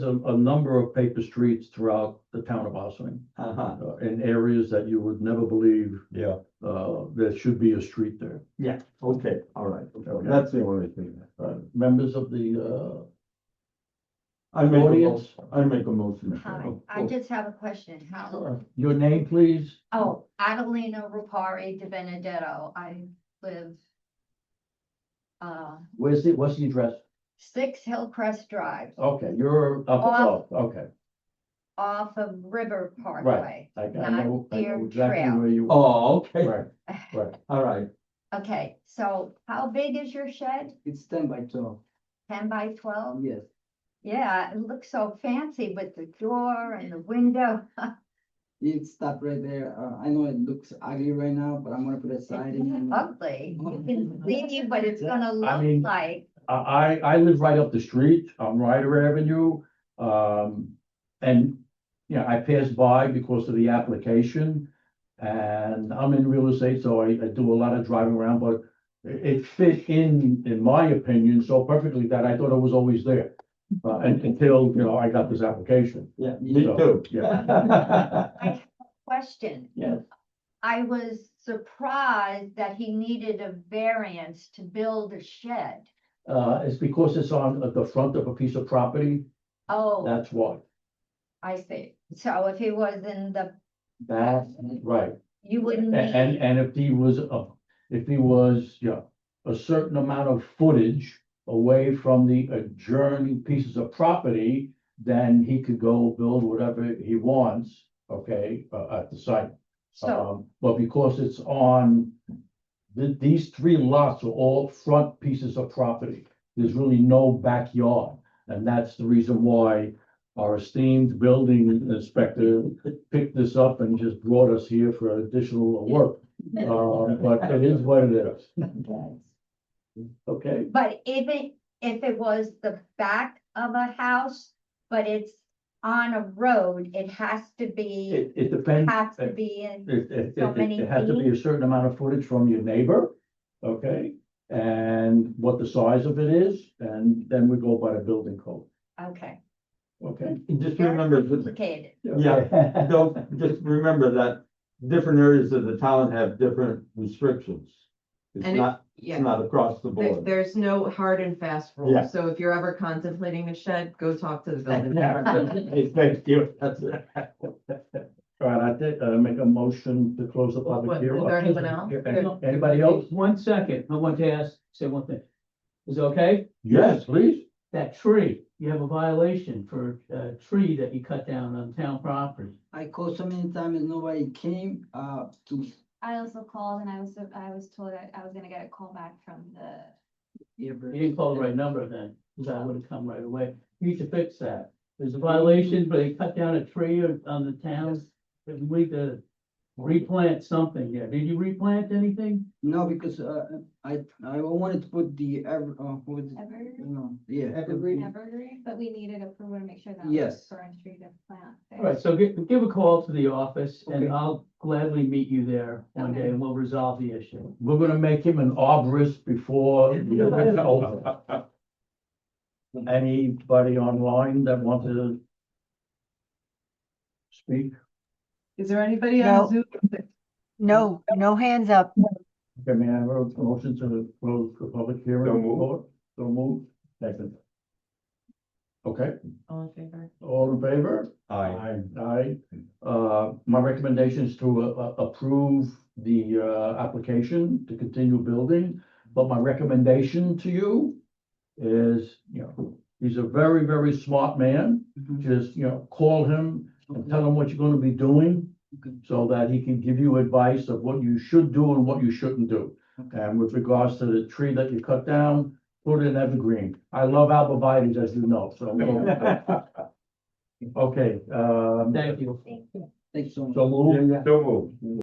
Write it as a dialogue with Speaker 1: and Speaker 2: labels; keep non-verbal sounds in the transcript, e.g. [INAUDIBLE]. Speaker 1: a, a number of paper streets throughout the town of Ossining.
Speaker 2: Uh-huh,
Speaker 1: uh, in areas that you would never believe,
Speaker 3: Yeah,
Speaker 1: uh, there should be a street there.
Speaker 2: okay, all right,
Speaker 1: Okay.
Speaker 3: that's the only thing.
Speaker 1: Uh, Members of the, uh,
Speaker 3: I make a motion,
Speaker 1: Audience?
Speaker 3: I make a motion.
Speaker 4: Hi,
Speaker 3: oh.
Speaker 4: I just have a question. How,
Speaker 1: uh, your name, please?
Speaker 4: oh, Adelina Rapari De Benedetto, I live uh,
Speaker 1: Where's the, what's the address?
Speaker 4: Six Hillcrest Drive
Speaker 1: Okay, you're up
Speaker 4: Off-
Speaker 1: above, okay.
Speaker 4: off of River Parkway.
Speaker 1: I, I know, I
Speaker 4: Not
Speaker 1: know
Speaker 4: Deer
Speaker 1: exactly
Speaker 4: Trail.
Speaker 1: where you are.
Speaker 2: oh, okay,
Speaker 1: Right,
Speaker 4: [LAUGHS]
Speaker 1: right.
Speaker 2: all right,
Speaker 4: Okay, so how big is your shed?
Speaker 5: It's ten by twelve, Um,
Speaker 4: Ten by twelve?
Speaker 5: yes.
Speaker 4: Yeah, it looks so fancy with the door and the window.
Speaker 5: It stop right there. Uh, I know it looks ugly right now, but I'm gonna put a siding.
Speaker 4: It's
Speaker 5: and-
Speaker 4: Ugly. You can see what it's gonna
Speaker 1: mean-
Speaker 4: look like.
Speaker 1: I, I, I live right up the street on Ryder Avenue. Um, and, you know, I passed by because of the application. And I'm in real estate, so I, I do a lot of driving around, but it, it fit in, in my opinion, so perfectly that I thought it was always there. Uh, and until, you know, I got this application.
Speaker 2: yeah.
Speaker 1: Me [LAUGHS]
Speaker 3: too.
Speaker 1: Yeah,
Speaker 4: Question.
Speaker 1: yeah.
Speaker 4: I was surprised that he needed a variance to build a shed.
Speaker 1: Uh, it's because it's on uh, the front of a piece of property,
Speaker 4: Oh,
Speaker 1: that's why.
Speaker 4: I see. So if he was in the,
Speaker 1: That's right.
Speaker 4: you wouldn't
Speaker 1: A- And,
Speaker 4: need,
Speaker 1: and if he was, a- if he was, yeah, a certain amount of footage away from the adjoining pieces of property, then he could go build whatever he wants, okay, uh, at the site.
Speaker 4: so,
Speaker 1: Um, But because it's on, th- these three lots are all front pieces of property. There's really no backyard. And that's the reason why our esteemed building inspector picked this up and just brought us here for additional work. Um, But it is what it is, okay?
Speaker 4: but if it, if it was the back of a house, but it's on a road, it has to be,
Speaker 1: It, it depends.
Speaker 4: has to be in,
Speaker 1: It, it,
Speaker 4: So
Speaker 1: it-
Speaker 4: many
Speaker 1: it has to be a certain amount of footage from your neighbor, okay? And what the size of it is, and then we go by the building code,
Speaker 4: okay.
Speaker 1: okay?
Speaker 3: Just
Speaker 4: Very
Speaker 3: remember, that-
Speaker 4: Complicated,
Speaker 1: Yeah. [LAUGHS]
Speaker 3: don't, just remember that different areas of the town have different restrictions. It's
Speaker 6: And it-
Speaker 3: not, it's
Speaker 6: Yeah,
Speaker 3: not across the
Speaker 6: there-
Speaker 3: board.
Speaker 6: there's no hard and fast
Speaker 3: Yeah.
Speaker 6: rule, so if you're ever contemplating a shed, go talk to the building.
Speaker 3: Hey, Thank you, that's it.
Speaker 1: All right, I did, uh, make a motion to close the public
Speaker 6: What-
Speaker 1: hearing.
Speaker 6: is there anyone else?
Speaker 1: Any- Anybody else?
Speaker 5: One second, I want to ask, say one thing. Is it okay?
Speaker 1: Yes, please.
Speaker 5: That tree, you have a violation for a tree that you cut down on town property. I called so many times and nobody came, uh, to,
Speaker 7: I also called and I was, I was told that I was gonna get a call back from the
Speaker 5: you
Speaker 8: You didn't
Speaker 5: didn't
Speaker 8: call the right number then, because I would have come right away. You need to fix that. There's a violation, but they cut down a tree on- on the town. And we could replant something there. Did you replant anything?
Speaker 5: No, because, uh, I, I wanted to put the, ever, uh, what was it?
Speaker 7: Evergreen,
Speaker 5: No, yeah.
Speaker 7: Evergreen, but we needed approval to make sure that.
Speaker 5: Yes.
Speaker 7: For entry to plant.
Speaker 8: All right, so give, give a call to the office
Speaker 5: Okay.
Speaker 8: and I'll gladly meet you there one day
Speaker 7: Okay.
Speaker 8: and we'll resolve the issue.
Speaker 1: We're gonna make him an arborist
Speaker 3: [LAUGHS]
Speaker 1: before. the event's over. Anybody online that wants to speak?
Speaker 6: Is there anybody on Zoom? No,
Speaker 9: no hands up.
Speaker 1: Okay, may I have a motion to close the public hearing?
Speaker 3: So moved.
Speaker 1: So moved. Second. Okay,
Speaker 6: All in favor?
Speaker 1: all in favor?
Speaker 3: Aye.
Speaker 1: Aye. Uh, my recommendation is to, uh, uh, approve the, uh, application to continue building. But my recommendation to you is, you know, he's a very, very smart man.
Speaker 5: Mhm.
Speaker 1: Just, you know, call him and tell him what you're gonna be doing
Speaker 5: Okay.
Speaker 1: so that he can give you advice of what you should do and what you shouldn't do.
Speaker 5: Okay.
Speaker 1: And with regards to the tree that you cut down, put in evergreen. I love albivites, as you know,
Speaker 5: [LAUGHS]
Speaker 1: so. Okay, um.
Speaker 8: Thank you.
Speaker 5: Thanks so much.
Speaker 1: So move.
Speaker 3: [LAUGHS] Don't move.